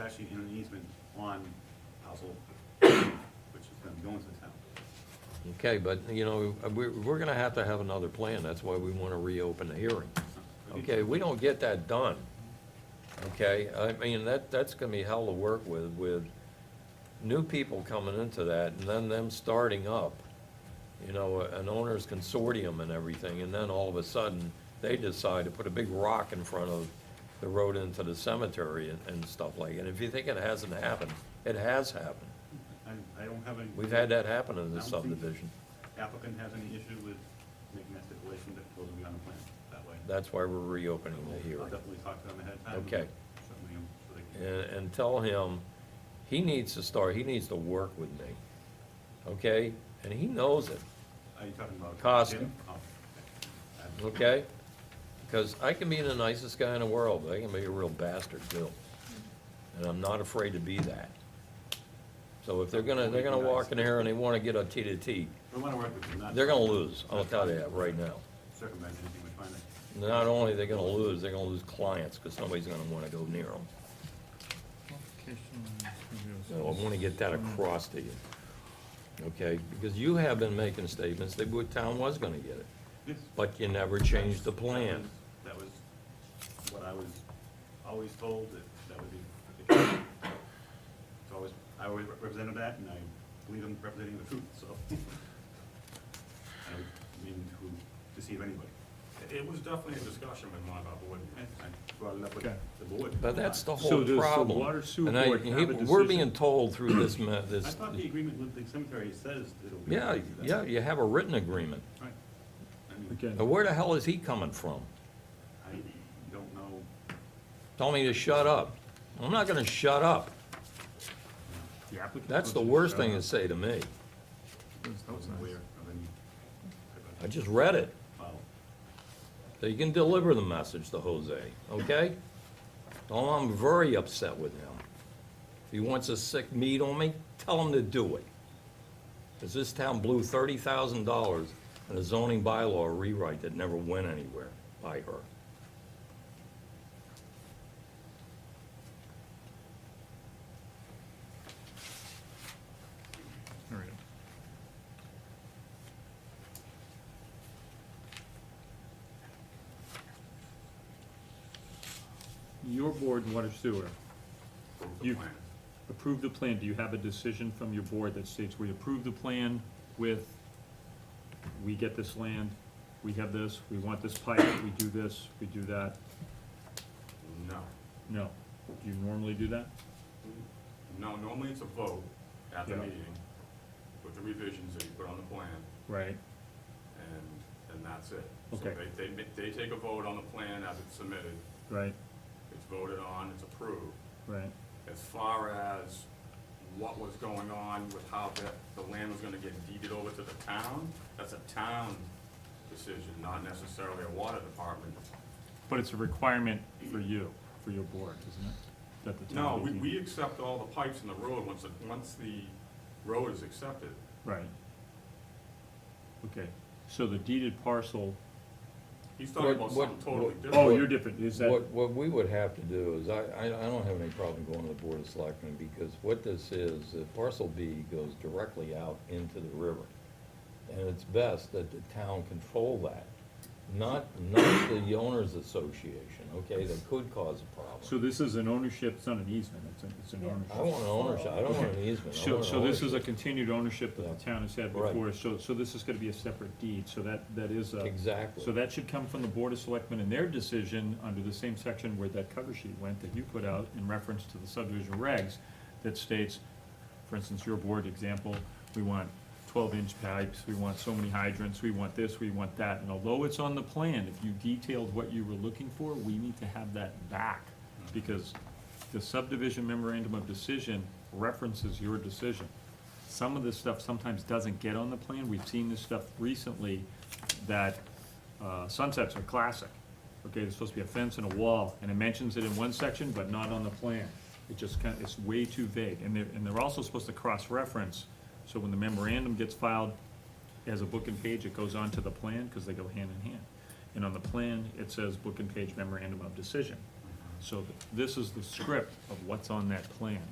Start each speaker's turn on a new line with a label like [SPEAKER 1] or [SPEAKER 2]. [SPEAKER 1] actually in an easement on household, which is gonna be going to the town.
[SPEAKER 2] Okay, but, you know, we, we're gonna have to have another plan, that's why we wanna reopen the hearing. Okay, we don't get that done, okay? I mean, that, that's gonna be hell to work with, with new people coming into that, and then them starting up, you know, an owner's consortium and everything, and then all of a sudden, they decide to put a big rock in front of the road into the cemetery and, and stuff like, that. and if you think it hasn't happened, it has happened.
[SPEAKER 1] I, I don't have any.
[SPEAKER 2] We've had that happen in
[SPEAKER 1] I
[SPEAKER 2] the
[SPEAKER 1] don't think-
[SPEAKER 2] subdivision.
[SPEAKER 1] Applicant has any issue with making that stipulation that goes beyond the plan that way.
[SPEAKER 2] That's why we're reopening
[SPEAKER 1] So
[SPEAKER 2] the
[SPEAKER 1] I'll
[SPEAKER 2] hearing.
[SPEAKER 1] definitely talk to them ahead of time.
[SPEAKER 2] Okay.
[SPEAKER 1] Certainly, um, so they can-
[SPEAKER 2] And, and tell him, he needs to start, he needs to work with me, okay? And he knows it,
[SPEAKER 1] Are you talking about?
[SPEAKER 2] Costa.
[SPEAKER 1] Jim? Oh, okay. Uh,
[SPEAKER 2] okay? Because I can be the nicest guy in the world, but I can be a real bastard too. And I'm not afraid to be that. So if they're gonna, they're gonna walk in here and they wanna get a T to T,
[SPEAKER 1] We wanna work with them, not.
[SPEAKER 2] they're gonna lose, I'll tell you that right now.
[SPEAKER 1] Circumvent anything we find.
[SPEAKER 2] Not only they're gonna lose, they're gonna lose clients, because nobody's gonna wanna go near them. So I want to get that across to you. Okay, because you have been making statements that the town was going to get it,
[SPEAKER 1] Yes.
[SPEAKER 2] but you never changed the plan.
[SPEAKER 1] That was that was what I was always told that that would be the case. So I was, I was represented that and I believe I'm representing the truth, so. I don't mean to deceive anybody.
[SPEAKER 3] It- It was definitely a discussion with one of our board
[SPEAKER 1] I
[SPEAKER 3] members.
[SPEAKER 1] brought it up with
[SPEAKER 4] Okay.
[SPEAKER 1] the board.
[SPEAKER 2] But that's the
[SPEAKER 4] So
[SPEAKER 2] whole
[SPEAKER 4] does the
[SPEAKER 2] problem.
[SPEAKER 4] water sewer
[SPEAKER 2] And I-
[SPEAKER 4] board have a
[SPEAKER 2] We're
[SPEAKER 4] decision?
[SPEAKER 2] being told through this, ma-
[SPEAKER 1] I
[SPEAKER 2] this,
[SPEAKER 1] thought the agreement with the cemetery says it'll be.
[SPEAKER 2] yeah, yeah, you have a written agreement.
[SPEAKER 1] Right. I mean,
[SPEAKER 4] Again,
[SPEAKER 2] Now, where the hell is he coming from?
[SPEAKER 1] I don't know.
[SPEAKER 2] Told me to shut up. I'm not going to shut up.
[SPEAKER 1] The applicant.
[SPEAKER 2] That's the worst thing to say to me.
[SPEAKER 1] I wasn't aware of any type
[SPEAKER 2] I
[SPEAKER 1] of
[SPEAKER 2] just read it.
[SPEAKER 1] file.
[SPEAKER 2] So you can deliver the message to Jose, okay? Oh, I'm very upset with him. If he wants a sick meat on me, tell him to do it. Because this town blew thirty thousand dollars in a zoning bylaw rewrite that never went anywhere by her.
[SPEAKER 4] there we go. Your board, water sewer, you approved the plan, do you have a decision from your board that states we approve the plan with, we get this land, we have this, we want this pipe, we do this, we do that?
[SPEAKER 3] No,
[SPEAKER 4] No, do you normally do that?
[SPEAKER 3] no, normally it's a vote at the
[SPEAKER 4] Yeah.
[SPEAKER 3] meeting with the revisions that you put on the plan,
[SPEAKER 4] Right.
[SPEAKER 3] and, and that's it.
[SPEAKER 4] Okay.
[SPEAKER 3] So they, they, ma- they take a vote on the plan as it's submitted,
[SPEAKER 4] Right,
[SPEAKER 3] it's voted on, it's approved.
[SPEAKER 4] right,
[SPEAKER 3] As far as what was going on with how that, the land was gonna get deeded over to the town, that's a town decision, not necessarily a water department
[SPEAKER 4] but it's a requirement for you, for your board, isn't it? That the
[SPEAKER 3] No,
[SPEAKER 4] town
[SPEAKER 3] we,
[SPEAKER 4] meeting-
[SPEAKER 3] we accept all the pipes in the road once, it- once the road is accepted.
[SPEAKER 4] Right. Okay, so the deeded parcel,
[SPEAKER 3] He's talking
[SPEAKER 2] What-
[SPEAKER 3] about
[SPEAKER 2] what-
[SPEAKER 3] something totally
[SPEAKER 2] what-
[SPEAKER 4] oh,
[SPEAKER 3] different.
[SPEAKER 4] you're different, is that,
[SPEAKER 2] What, what we would have to do is, I, I, I don't have any problem going to the Board of Selectmen, because what this is, uh, parcel B goes directly out into the river. And it's best that the town control that, not, not the owners association, okay, that could cause a problem.
[SPEAKER 4] so this is an ownership, it's not an easement, it's an, it's an
[SPEAKER 2] I
[SPEAKER 4] ownership.
[SPEAKER 2] want an ownership, I don't want an easement, I
[SPEAKER 4] So,
[SPEAKER 2] want an
[SPEAKER 4] so this is a
[SPEAKER 2] ownership.
[SPEAKER 4] continued ownership that
[SPEAKER 2] Yeah.
[SPEAKER 4] the town has had
[SPEAKER 2] Right.
[SPEAKER 4] before, so, so this is gonna be a separate deed, so that, that is a. So
[SPEAKER 2] Exactly,
[SPEAKER 4] that should come from the Board of Selectmen and their decision under the same section where that cover sheet went that you put out in reference to the subdivision regs that states, for instance, your board example, we want twelve inch pipes, we want so many hydrants, we want this, we want that. And although it's on the plan, if you detailed what you were looking for, we need to have that back. Because the subdivision memorandum of decision references your decision. Some of this stuff sometimes doesn't get on the plan. We've seen this stuff recently that uh, sunsets are classic. Okay, there's supposed to be a fence and a wall, and it mentions it in one section, but not on the plan. It just kind, it's way too vague, and they're, and they're also supposed to cross-reference, so when the memorandum gets filed as a book and page, it goes on to the plan, because they go hand in hand. And on the plan, it says book and page memorandum of decision. So th- this is the script of what's on that plan.